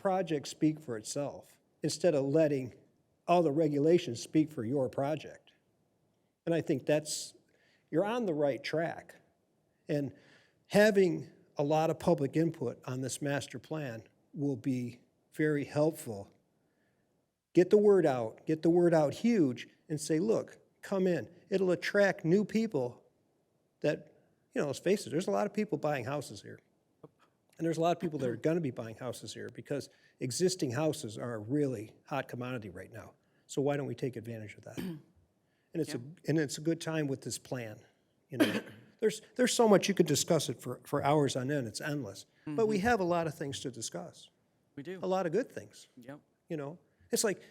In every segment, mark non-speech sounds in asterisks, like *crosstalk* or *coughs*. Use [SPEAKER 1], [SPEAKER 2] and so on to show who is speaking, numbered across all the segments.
[SPEAKER 1] project speak for itself instead of letting all the regulations speak for your project. And I think that's, you're on the right track. And having a lot of public input on this master plan will be very helpful. Get the word out, get the word out huge, and say, look, come in. It'll attract new people that, you know, let's face it, there's a lot of people buying houses here. And there's a lot of people that are going to be buying houses here because existing houses are a really hot commodity right now. So why don't we take advantage of that? And it's a, and it's a good time with this plan, you know? *coughs* There's, there's so much, you could discuss it for, for hours on end, it's endless. But we have a lot of things to discuss,
[SPEAKER 2] We do.
[SPEAKER 1] a lot of good things,
[SPEAKER 2] Yep.
[SPEAKER 1] you know? It's like,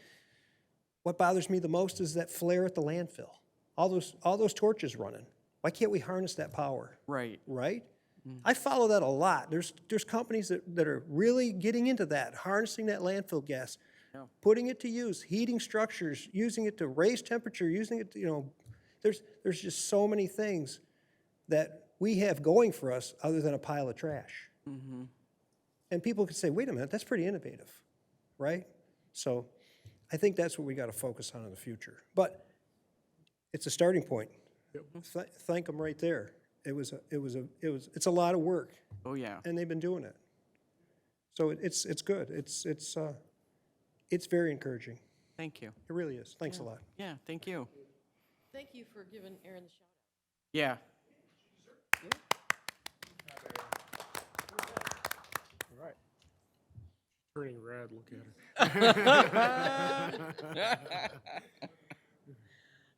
[SPEAKER 1] what bothers me the most is that flare at the landfill. All those, all those torches running. Why can't we harness that power?
[SPEAKER 2] Right.
[SPEAKER 1] right? I follow that a lot. There's, there's companies that, that are really getting into that, harnessing that landfill gas,
[SPEAKER 2] Yeah.
[SPEAKER 1] putting it to use, heating structures, using it to raise temperature, using it, to, you know, there's, there's just so many things that we have going for us other than a pile of trash. And people could say, wait a minute, that's pretty innovative, right? So I think that's what we got to focus on in the future. But it's a starting point. Th- Thank them right there. It was, a- it was, a it was, it's a lot of work,
[SPEAKER 2] Oh, yeah.
[SPEAKER 1] and they've been doing it. So it- it's, it's good. It's, it's, uh, it's very encouraging.
[SPEAKER 2] Thank you.
[SPEAKER 1] It really is. Thanks a lot.
[SPEAKER 2] Yeah, thank you.
[SPEAKER 3] Thank you for giving Aaron the shout out.
[SPEAKER 2] Yeah.
[SPEAKER 4] Turning red, look at her.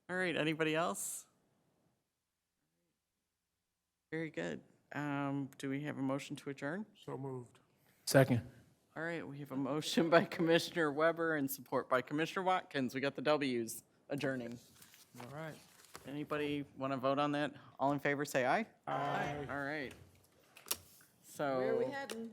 [SPEAKER 2] All right, anybody else? Very good. Um, do we have a motion to adjourn?
[SPEAKER 4] So moved.
[SPEAKER 5] Second.
[SPEAKER 2] All right, we have a motion by *laughs* Commissioner Weber and support by Commissioner Watkins. We got the W's adjourning.
[SPEAKER 5] All right.
[SPEAKER 2] Anybody want to vote on that? All in favor, say aye. Aye. All right.
[SPEAKER 3] Where are we
[SPEAKER 2] So
[SPEAKER 3] heading?